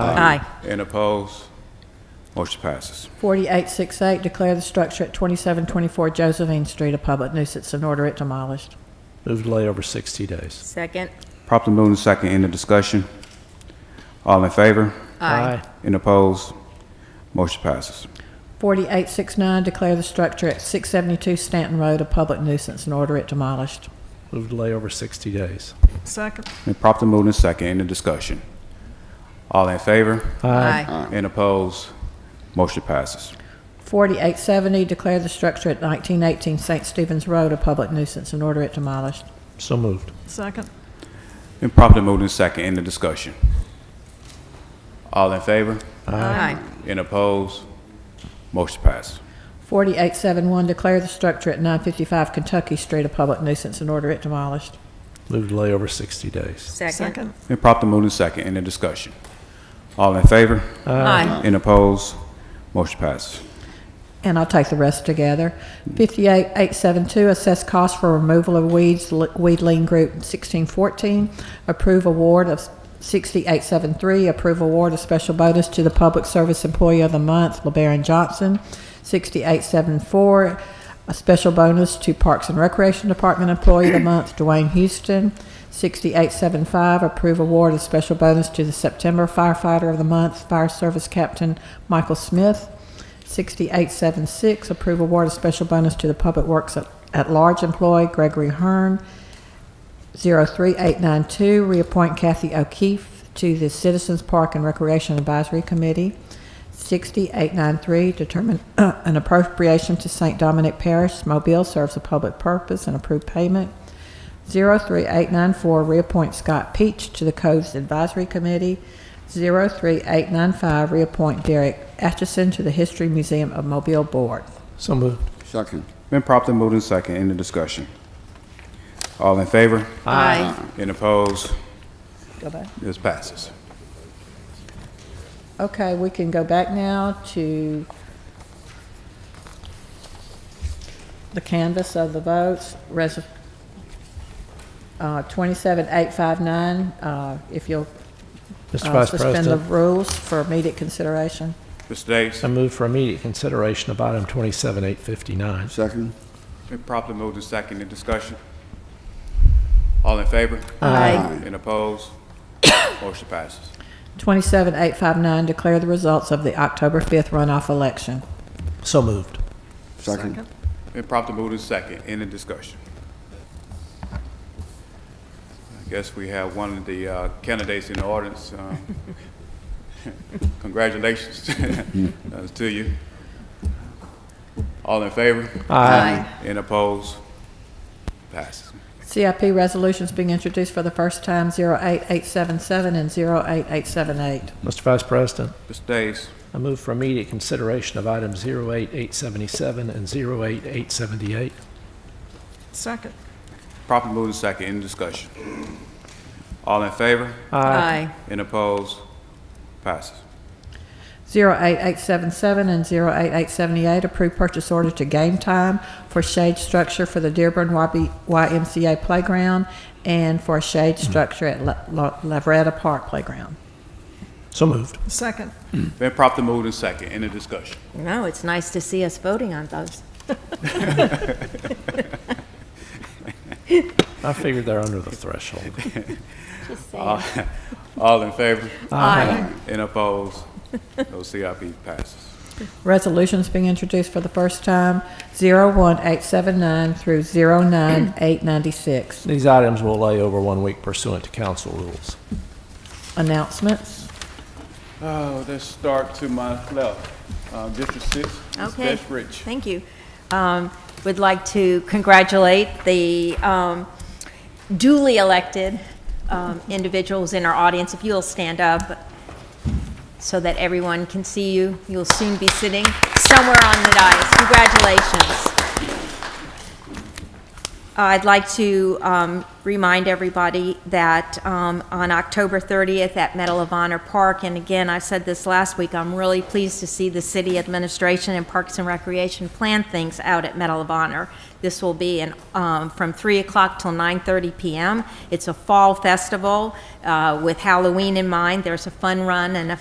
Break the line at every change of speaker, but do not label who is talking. Aye.
And opposed? Motion passes.
4868, declare the structure at 2724 Josephine Street a public nuisance and order it demolished.
Move delay over 60 days.
Second.
Properly moved in second, end of discussion. All in favor? And opposed? Motion passes.
4869, declare the structure at 672 Stanton Road a public nuisance and order it demolished.
Move delay over 60 days.
Second.
And properly moved in second, end of discussion. All in favor?
Aye.
And opposed? Motion passes.
4870, declare the structure at 1918 St. Stephen's Road a public nuisance and order it demolished.
So moved.
Second.
And properly moved in second, end of discussion. All in favor?
Aye.
And opposed? Motion passes.
4871, declare the structure at 955 Kentucky Street a public nuisance and order it demolished.
Move delay over 60 days.
Second.
Second.
And properly moved in second, end of discussion. All in favor?
Aye.
And opposed? Motion passes.
And I'll take the rest together. 58872, assess cost for removal of weeds, li- weed lien group 1614. Approve award of 6873, approve award of special bonus to the Public Service Employee of the Month, LeBaron Johnson. 6874, a special bonus to Parks and Recreation Department Employee of the Month, Dwayne Houston. 6875, approve award of special bonus to the September Firefighter of the Month, Fire Service Captain Michael Smith. 6876, approve award of special bonus to the Public Works at- at-large employee Gregory Hearn. 03892, reappoint Kathy O'Keefe to the Citizens Park and Recreation Advisory Committee. 6893, determine an appropriation to St. Dominic Parish, Mobile, serves a public purpose and approve payment. 03894, reappoint Scott Peach to the Coves Advisory Committee. 03895, reappoint Derek Atchison to the History Museum of Mobile Board.
So moved.
Second.
Been properly moved in second, end of discussion. All in favor?
Aye.
And opposed?
Go back.
This passes.
Okay, we can go back now to the canvas of the votes, res, uh, twenty-seven eight five nine, uh, if you'll
Mr.
uh,
Vice
suspend the
President,
rules for immediate consideration.
Mr. Davis,
I move for immediate consideration of item 27859.
Second.
been properly moved in second, in discussion. All in favor?
Aye.
And opposed? Motion passes.
Twenty-seven eight five nine, declare the results of the October fifth runoff election.
So moved.
Second.
Been properly moved in second, in the discussion. I guess we have one of the uh, candidates in the audience. um, Congratulations uh, to you. All in favor?
Aye.
And opposed? Passes.
CIP resolutions being introduced for the first time, zero eight eight seven seven and zero eight eight seven eight.
Mr. Vice President,
Mr. Davis,
I move for immediate consideration of items 08877 and 08878.
Second.
properly moved in second, in discussion. All in favor?
Aye.
And opposed? Passes.
08877 and 08878, approved purchase order to Game Time for shade structure for the Dearborn YB YMCA Playground and for a shade structure at La- La- Lavretta Park Playground.
So moved.
Second.
Been properly moved in second, in the discussion.
No, it's nice to see us voting on those.
I figured they're under the threshold.
All in favor?
Aye.
And opposed? No CIP passes.
Resolutions being introduced for the first time, 01879 through 09896.
These items will lay over one week pursuant to council rules.
Announcements.
Oh, let's start to my left. Uh, District Six, Ms.
Okay.
Beth Rich.
Thank you. Um, Would like to congratulate the um, duly elected um, individuals in our audience. If you'll stand up so that everyone can see you, you'll soon be sitting somewhere on the dais. Congratulations. Uh, I'd like to um, remind everybody that um, on October 30th at Medal of Honor Park, and again, I said this last week, I'm really pleased to see the city administration and Parks and Recreation plan things out at Medal of Honor. This will be in, um, from 3 o'clock till 9:30 p.m. It's a fall festival uh, with Halloween in mind. There's a fun run and a